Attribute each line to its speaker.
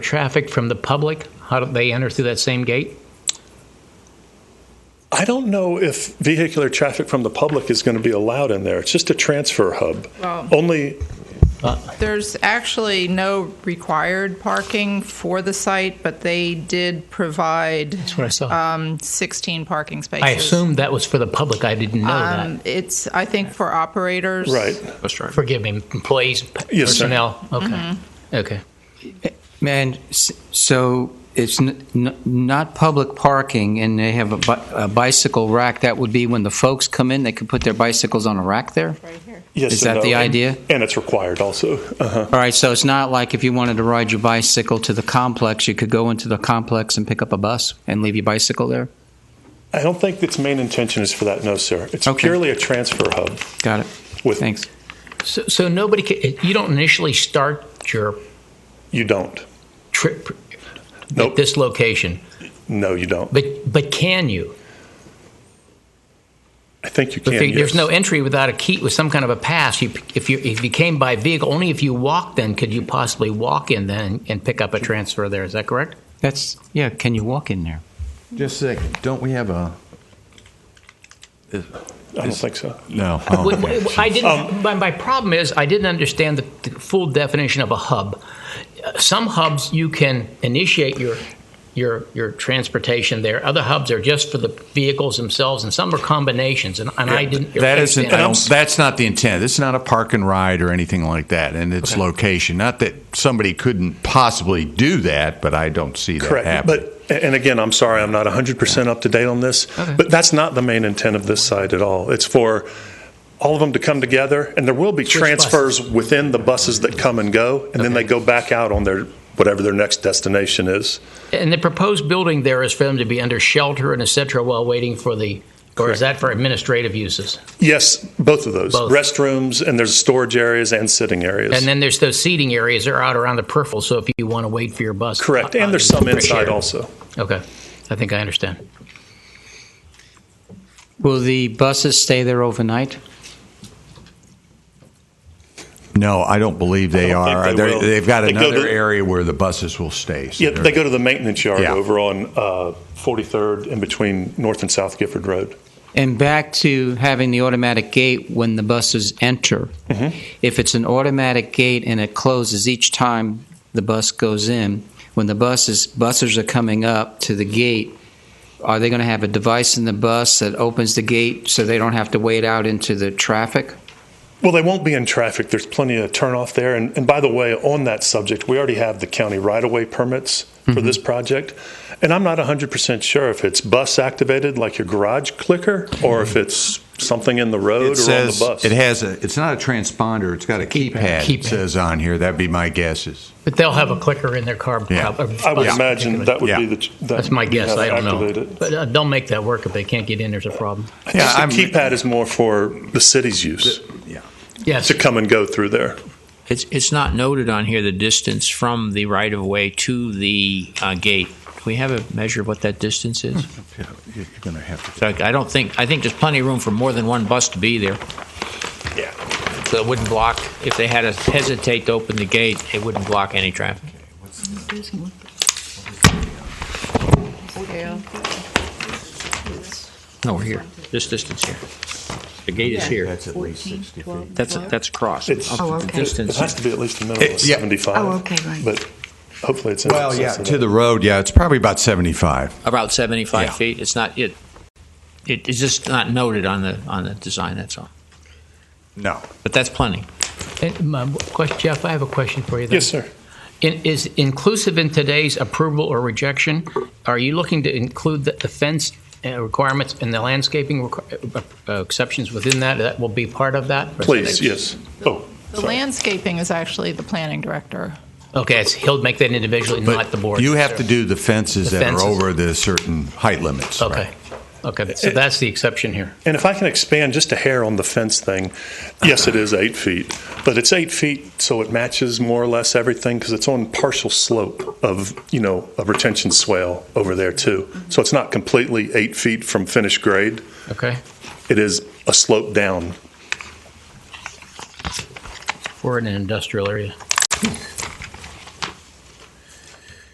Speaker 1: traffic from the public? How do they enter through that same gate?
Speaker 2: I don't know if vehicular traffic from the public is going to be allowed in there. It's just a transfer hub.
Speaker 3: Well-
Speaker 2: Only,
Speaker 3: There's actually no required parking for the site, but they did provide
Speaker 1: That's what I saw.
Speaker 3: 16 parking spaces.
Speaker 1: I assumed that was for the public. I didn't know
Speaker 3: Um, It's, I think, for operators.
Speaker 2: right.
Speaker 1: that. Forgive me, employees,
Speaker 2: Yes, sir.
Speaker 1: personnel. Okay. Okay.
Speaker 4: And s- so it's n- n- not public parking, and they have a bi- a bicycle rack. That would be when the folks come in, they could put their bicycles on a rack there?
Speaker 2: Yes
Speaker 4: Is
Speaker 2: and
Speaker 4: that the
Speaker 2: no. And-
Speaker 4: idea?
Speaker 2: And it's required also. Uh-huh.
Speaker 4: All right, so it's not like if you wanted to ride your bicycle to the complex, you could go into the complex and pick up a bus and leave your bicycle there?
Speaker 2: I don't think its main intention is for that, no, sir. It's
Speaker 4: Okay.
Speaker 2: purely a transfer hub.
Speaker 4: Got it.
Speaker 2: With-
Speaker 4: Thanks.
Speaker 1: So, so nobody, ca- you don't initially start your
Speaker 2: You don't.
Speaker 1: trip at
Speaker 2: Nope.
Speaker 1: this location,
Speaker 2: No, you don't.
Speaker 1: but, but can you?
Speaker 2: I think you
Speaker 1: If
Speaker 2: can.
Speaker 1: there- There's
Speaker 2: yes.
Speaker 1: no entry without a key, with some kind of a pass. You, if you, if you came by vehicle, only if you walked then could you possibly walk in then and pick up a transfer there. Is that correct?
Speaker 4: That's, yeah, can you walk in there?
Speaker 5: Just a second. Don't we have a?
Speaker 2: I don't think so.
Speaker 5: No.
Speaker 2: Oh,
Speaker 5: oh,
Speaker 1: Wait, wait, I
Speaker 2: Um,
Speaker 1: didn't. My, my problem is I didn't understand the, the full definition of a hub. Uh, Some hubs you can initiate your your your transportation there. Other hubs are just for the vehicles themselves, and some are combinations. And, and I didn't.
Speaker 5: That isn't. I
Speaker 1: understand.
Speaker 5: don't, that's not the intent. It's not a park and ride or anything like that, and its location. Not that somebody couldn't possibly do that, but I don't see that
Speaker 2: Correct.
Speaker 5: happening.
Speaker 2: But, and again, I'm sorry, I'm not 100% up to date on this, but that's not the main intent of this site at all. It's for all of them to come together, and there will be
Speaker 1: Switch
Speaker 2: transfers within the buses that come and go, and then they go back out on their, whatever their next destination is.
Speaker 1: And the proposed building there is for them to be under shelter and et cetera while waiting for the. Or is that for administrative uses?
Speaker 2: Yes, both of those.
Speaker 1: Both.
Speaker 2: Restrooms, and there's storage areas and sitting areas.
Speaker 1: And then there's those seating areas that are out around the peripheral. So if you want to wait for your bus,
Speaker 2: Correct.
Speaker 1: uh,
Speaker 2: And there's
Speaker 1: uh,
Speaker 2: some
Speaker 1: fresh
Speaker 2: inside
Speaker 1: air.
Speaker 2: also.
Speaker 1: Okay, I think I understand.
Speaker 4: Will the buses stay there overnight?
Speaker 5: no, I don't believe they
Speaker 2: don't think
Speaker 5: are.
Speaker 2: they
Speaker 5: They're-
Speaker 2: will.
Speaker 5: they've got
Speaker 2: They go
Speaker 5: another
Speaker 2: to-
Speaker 5: area where the buses will stay. so
Speaker 2: Yeah,
Speaker 5: they're-
Speaker 2: they go to the maintenance yard
Speaker 5: Yeah.
Speaker 2: over on uh, 43rd in between North and South Gifford Road.
Speaker 4: And back to having the automatic gate when the buses enter. If it's an automatic gate and it closes each time the bus goes in, when the buses buses are coming up to the gate, are they going to have a device in the bus that opens the gate so they don't have to wait out into the traffic?
Speaker 2: Well, they won't be in traffic. There's plenty of turnoff there. And, and by the way, on that subject, we already have the county right of way permits
Speaker 5: Mm-hmm.
Speaker 2: for this project. And I'm not 100% sure if it's bus activated, like your garage clicker, or if it's something in the road
Speaker 5: Mm-hmm. It
Speaker 2: or on the
Speaker 5: says
Speaker 2: bus.
Speaker 5: it has a. It's not a transponder. It's got a keypad.
Speaker 1: Keypad.
Speaker 5: It says on here. That'd be my guess. Is
Speaker 1: But they'll have a clicker in their car.
Speaker 5: Yeah.
Speaker 1: prob- or
Speaker 2: I would
Speaker 1: bus
Speaker 2: imagine
Speaker 1: particularly.
Speaker 2: that would
Speaker 5: Yeah.
Speaker 2: be the. That
Speaker 1: That's my
Speaker 2: you'd
Speaker 1: guess.
Speaker 2: have
Speaker 1: I
Speaker 2: to
Speaker 1: don't
Speaker 2: activate
Speaker 1: know.
Speaker 2: it.
Speaker 1: But uh, they'll make that work if they can't get in. There's a problem.
Speaker 2: I
Speaker 5: Yeah,
Speaker 2: think the
Speaker 5: I'm-
Speaker 2: keypad is more for the city's use
Speaker 5: yeah.
Speaker 1: Yes.
Speaker 2: to come and go through there.
Speaker 6: It's, it's not noted on here, the distance from the right-of-way to the uh, gate. Do we have a measure of what that distance is?
Speaker 5: You're going to have to.
Speaker 6: So I I don't think, I think there's plenty of room for more than one bus to be there.
Speaker 2: Yeah.
Speaker 6: So it wouldn't block, if they had to hesitate to open the gate, it wouldn't block any traffic.
Speaker 3: Scale.
Speaker 6: No, we're here, this distance here. The gate is here.
Speaker 5: That's at least sixty feet.
Speaker 6: That's, that's cross.
Speaker 2: It's-
Speaker 7: Oh, okay.
Speaker 2: It
Speaker 6: Distance.
Speaker 2: has to be at least a minimum of
Speaker 5: It- yeah.
Speaker 2: 75.
Speaker 7: Oh, okay, right.
Speaker 2: But hopefully it's in
Speaker 5: Well, yeah,
Speaker 2: excess of
Speaker 5: to
Speaker 2: that.
Speaker 5: the road. Yeah, it's probably about seventy-five.
Speaker 6: About 75
Speaker 5: Yeah.
Speaker 6: feet. It's not, it, it- it's just not noted on the, on the design, that's all.
Speaker 5: No.
Speaker 6: But that's plenty.
Speaker 1: And my question, Jeff, I have a question for you. then.
Speaker 2: Yes, sir.
Speaker 1: In, is inclusive in today's approval or rejection? Are you looking to include the, the fence uh, requirements and the landscaping requ- uh, uh, exceptions within that? That will be part of that.
Speaker 2: Please, yes. Oh,
Speaker 3: The
Speaker 2: sorry.
Speaker 3: landscaping is actually the planning director.
Speaker 1: Okay, it's, he'll make that individually,
Speaker 5: But
Speaker 1: not the board.
Speaker 5: You have to do the fences
Speaker 1: The
Speaker 5: that are
Speaker 1: fences.
Speaker 5: over the certain height limits.
Speaker 1: Okay.
Speaker 5: right?
Speaker 1: Okay.
Speaker 2: Eh.
Speaker 1: So that's the exception here.
Speaker 2: And if I can expand just a hair on the fence thing, yes, it is eight feet, but it's eight feet, so it matches more or less everything because it's on partial slope of, you know, a retention swale over there too. So it's not completely eight feet from finished grade.
Speaker 1: Okay.
Speaker 2: It is a slope down.
Speaker 1: We're in an industrial area.